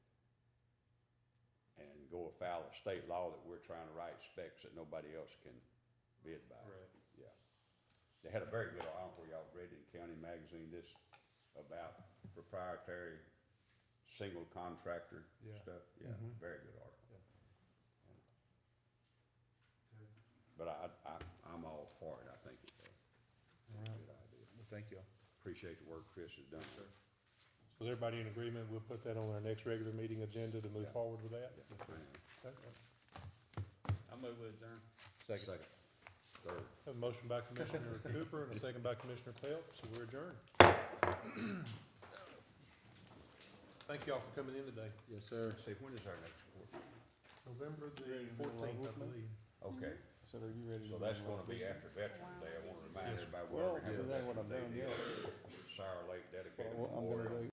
go afoul of state law that we're trying to write specs that nobody else can bid by. Right. Yeah. They had a very good, I don't know if y'all read it in County Magazine, this about proprietary single contractor Yeah. stuff. Yeah, Mm-hmm. Mhm. very good article. Yeah. Okay. But I, I, I'm all for it. I think it's a All right, good idea. well, thank you. Appreciate the work Chris has done. Sir. So is everybody in agreement? We'll put that on our next regular meeting agenda to move Yeah. forward with that? Okay. I move with adjourn. Second. Third. Have a motion by Commissioner Cooper and a second by Commissioner Phelps, so we're adjourned. Thank y'all for coming in today. Yes, sir. See, when is our next court? November the Fourteenth, I believe. Okay, So are you ready to? so that's gonna be after Veterans Day. I wanna remind everybody. we're Well, having that's Veterans what I've done, Day yeah. this year. Sour Lake dedicated Well, I'm gonna memorial. do